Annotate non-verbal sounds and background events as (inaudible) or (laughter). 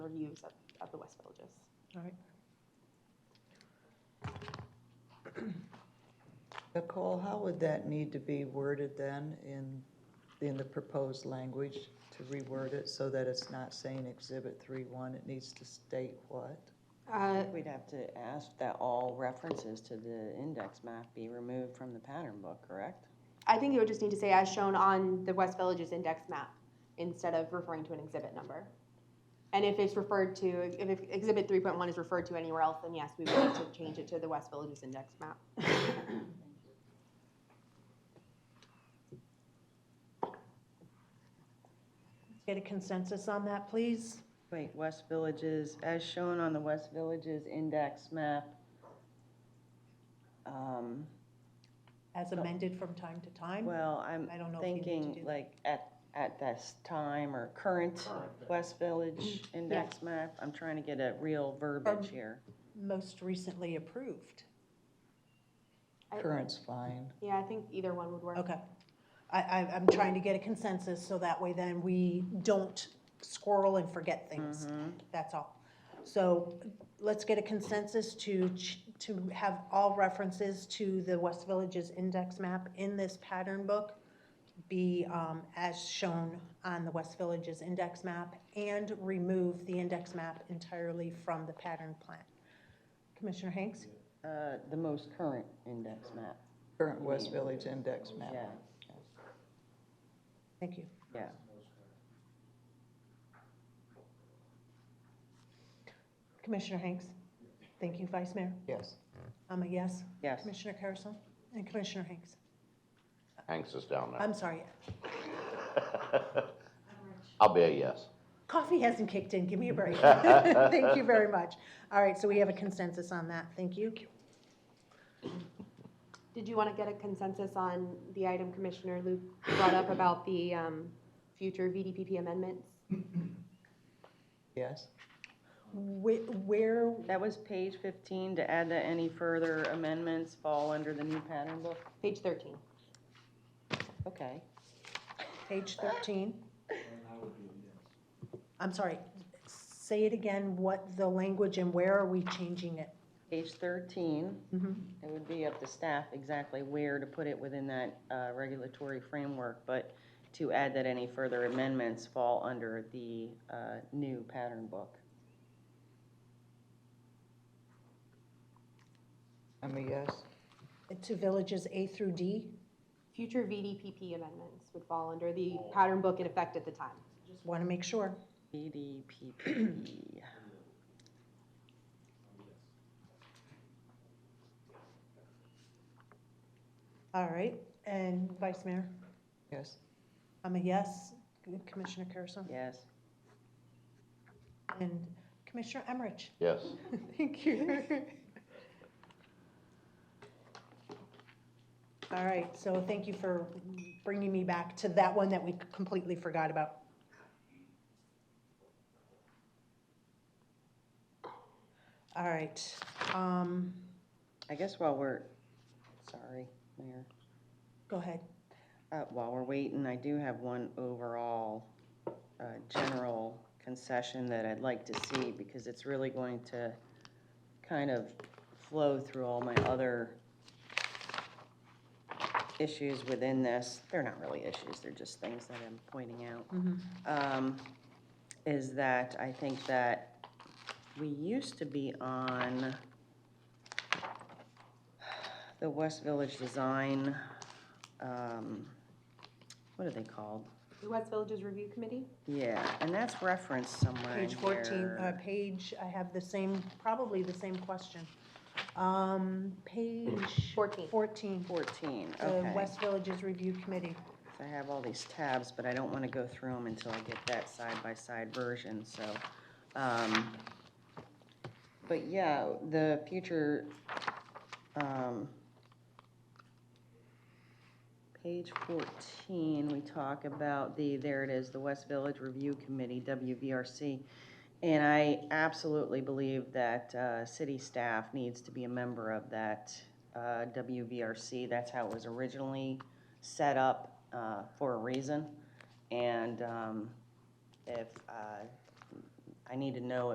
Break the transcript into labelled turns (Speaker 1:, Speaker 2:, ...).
Speaker 1: teams at, at the West Villages.
Speaker 2: All right. (clears throat) Nicole, how would that need to be worded then in, in the proposed language to reword it so that it's not saying exhibit three one, it needs to state what?
Speaker 1: Uh,
Speaker 3: We'd have to ask that all references to the index map be removed from the pattern book, correct?
Speaker 1: I think you would just need to say as shown on the West Villages index map instead of referring to an exhibit number. And if it's referred to, if if exhibit three point one is referred to anywhere else, then yes, we would need to change it to the West Villages index map.
Speaker 4: Get a consensus on that, please?
Speaker 3: Wait, West Villages, as shown on the West Villages index map. Um,
Speaker 4: As amended from time to time?
Speaker 3: Oh. Well, I'm
Speaker 4: I don't know if you need to
Speaker 3: thinking
Speaker 4: do that.
Speaker 3: like at, at this time or current West
Speaker 4: (clears throat)
Speaker 3: Village index map. I'm trying to get a real verbiage
Speaker 4: Um,
Speaker 3: here.
Speaker 4: Most recently approved.
Speaker 1: I-
Speaker 2: Current's fine.
Speaker 1: Yeah, I think either one would work.
Speaker 4: Okay. I, I, I'm trying to get a consensus so that way then we don't squirrel and forget things. That's all. So let's get a consensus to, ch- to have all references to the West Villages index map in this pattern book be um, as shown on the West Villages index map and remove the index map entirely from the pattern plan. Commissioner Hanks?
Speaker 3: Uh, the most current index map,
Speaker 2: Current West Village index map.
Speaker 3: yeah,
Speaker 4: Thank you.
Speaker 3: yeah.
Speaker 4: Commissioner Hanks? Thank you, Vice Mayor.
Speaker 2: Yes.
Speaker 4: I'm a yes.
Speaker 3: Yes.
Speaker 4: Commissioner Carrison and Commissioner Hanks.
Speaker 5: Hanks is down there.
Speaker 4: I'm sorry,
Speaker 5: (laughs) I'll be a yes.
Speaker 4: coffee hasn't kicked in, give me a break. Thank you very much. All right, so we have a consensus on that, thank you.
Speaker 1: Did you want to get a consensus on the item Commissioner Luke brought up about the um, future VDPP amendments?
Speaker 2: Yes.
Speaker 4: Wh- Where,
Speaker 3: That was page fifteen, to add that any further amendments fall under the new pattern book?
Speaker 1: Page thirteen.
Speaker 3: Okay.
Speaker 4: page 13? I'm sorry, say it again, what the language and where are we changing it?
Speaker 3: Page thirteen,
Speaker 4: Mhm.
Speaker 3: it would be up to staff exactly where to put it within that, uh, regulatory framework, but to add that any further amendments fall under the, uh, new pattern book.
Speaker 2: I'm a yes.
Speaker 4: To villages A through D,
Speaker 1: Future VDPP amendments would fall under the pattern book in effect at the time.
Speaker 4: want to make sure.
Speaker 3: E BDPP.
Speaker 4: All right, and Vice Mayor,
Speaker 2: Yes.
Speaker 4: I'm a yes. Commissioner Carrison
Speaker 3: yes.
Speaker 4: and Commissioner Emmerich?
Speaker 5: Yes.
Speaker 4: (laughs) Thank you. All right, so thank you for bringing me back to that one that we completely forgot about. All right, um,
Speaker 3: I guess while we're, sorry, Mayor.
Speaker 4: go ahead.
Speaker 3: Uh, While we're waiting, I do have one overall uh, general concession that I'd like to see because it's really going to kind of flow through all my other issues within this. They're not really issues, they're just things that I'm pointing out. Um, Is that I think that we used to be on the West Village Design um, what are they called?
Speaker 1: The West Villages Review Committee?
Speaker 3: Yeah, and that's referenced somewhere in
Speaker 4: Page 14, uh,
Speaker 3: here.
Speaker 4: page, I have the same, probably the same question. Um, page.
Speaker 1: 14.
Speaker 4: 14,
Speaker 3: Fourteen,
Speaker 4: the
Speaker 3: okay.
Speaker 4: West Villages Review Committee.
Speaker 3: I have all these tabs, but I don't want to go through them until I get that side-by-side version, so. um, But yeah, the future, um, page fourteen, we talk about the, there it is, the West Village Review Committee, WVRC. And I absolutely believe that uh, city staff needs to be a member of that uh, WVRC. That's how it was originally set up uh, for a reason. And um, if, uh, I need to know